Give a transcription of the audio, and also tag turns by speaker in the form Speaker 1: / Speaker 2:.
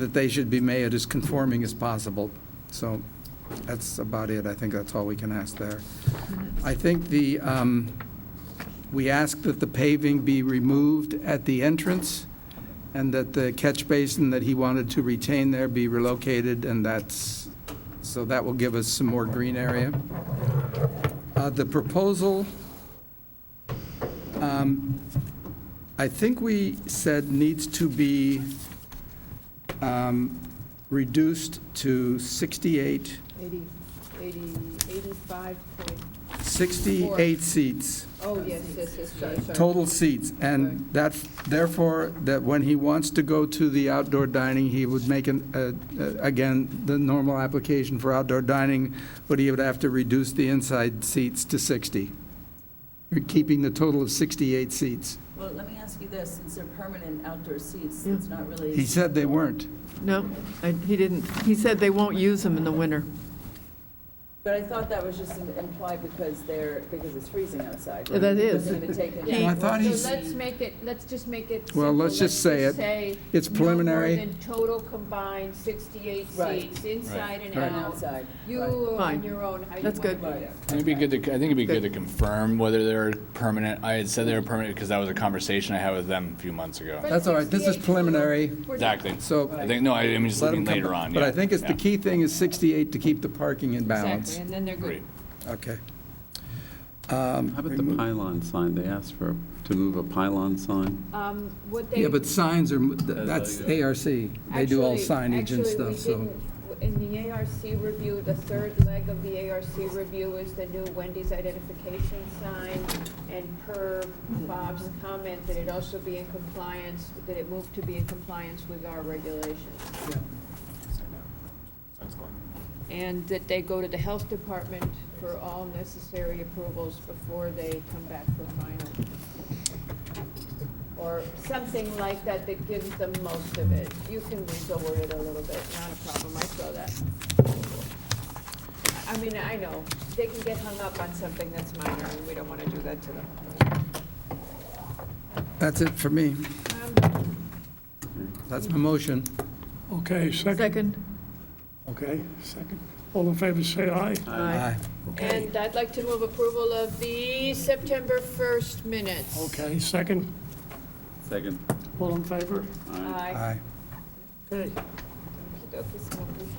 Speaker 1: that they should be made as conforming as possible. So that's about it. I think that's all we can ask there. I think the, um, we ask that the paving be removed at the entrance and that the catch basin that he wanted to retain there be relocated, and that's, so that will give us some more green area. Uh, The proposal, um, I think we said needs to be um, reduced to 68,
Speaker 2: 80, 80, 85 point,
Speaker 1: 68 seats,
Speaker 2: oh, yes, yes, yes, sorry, sorry.
Speaker 1: total seats. And that, therefore, that when he wants to go to the outdoor dining, he would make, an uh, uh, again, the normal application for outdoor dining, but he would have to reduce the inside seats to 60, keeping the total of 68 seats.
Speaker 3: Well, let me ask you this, since they're permanent outdoor seats, it's not really.
Speaker 1: He said they weren't.
Speaker 4: No, I- he didn't, he said they won't use them in the winter.
Speaker 3: But I thought that was just implied because they're, because it's freezing outside. right?
Speaker 4: That
Speaker 3: It
Speaker 4: is.
Speaker 3: doesn't even take into
Speaker 1: Well, I
Speaker 3: account
Speaker 1: thought
Speaker 3: the
Speaker 1: he
Speaker 5: So
Speaker 1: s-
Speaker 5: let's make it, let's just make it simple.
Speaker 1: Well, let's just say it.
Speaker 5: say
Speaker 1: It's
Speaker 5: no more
Speaker 1: preliminary.
Speaker 5: than total combined 68
Speaker 3: Right.
Speaker 5: seats, inside and
Speaker 3: And
Speaker 5: out.
Speaker 3: outside.
Speaker 5: You
Speaker 3: Right.
Speaker 5: are
Speaker 4: Fine.
Speaker 5: on your own, how you
Speaker 4: That's
Speaker 5: want to
Speaker 4: good.
Speaker 5: do it.
Speaker 3: Right.
Speaker 6: I think it'd be good to, I think it'd be good to confirm whether they're permanent. I had said they were permanent because that was a conversation I had with them a few months ago.
Speaker 1: That's all right. This is preliminary.
Speaker 6: Exactly.
Speaker 1: So-
Speaker 6: I think, no, I am just
Speaker 1: Let 'em
Speaker 6: looking
Speaker 1: come
Speaker 6: later
Speaker 1: back.
Speaker 6: on.
Speaker 1: But I
Speaker 6: yeah,
Speaker 1: think it's, the
Speaker 6: yeah.
Speaker 1: key thing is 68 to keep the parking in balance.
Speaker 5: Exactly, and then they're
Speaker 6: Agree.
Speaker 5: good.
Speaker 1: Okay.
Speaker 7: How about the pylon sign? They asked for, to move a pylon sign.
Speaker 5: Um, What they.
Speaker 1: Yeah, but signs are, that's ARC. They do all
Speaker 5: Actually-
Speaker 1: signage and stuff, so.
Speaker 5: Actually, we didn't, in the ARC review, the third leg of the ARC review is the new Wendy's identification sign, and per Bob's comment, that it also be in compliance, that it moved to be in compliance with our regulations. And that they go to the health department for all necessary approvals before they come back for final. Or something like that that gives them most of it. You can reword it a little bit, not a problem, I saw that. I I mean, I know, they can get hung up on something that's minor, and we don't want to do that to them.
Speaker 1: That's it for me.
Speaker 5: Um,
Speaker 1: That's my motion.
Speaker 8: Okay, second,
Speaker 4: Second?
Speaker 8: okay, second. All in favor, say aye.
Speaker 1: Aye.
Speaker 5: And I'd like to move approval of the September 1st minutes.
Speaker 8: Okay, second,
Speaker 7: Second.
Speaker 8: all in favor?
Speaker 5: Aye.
Speaker 1: Aye.
Speaker 8: Okay.
Speaker 5: Okey-dokey, Smokey.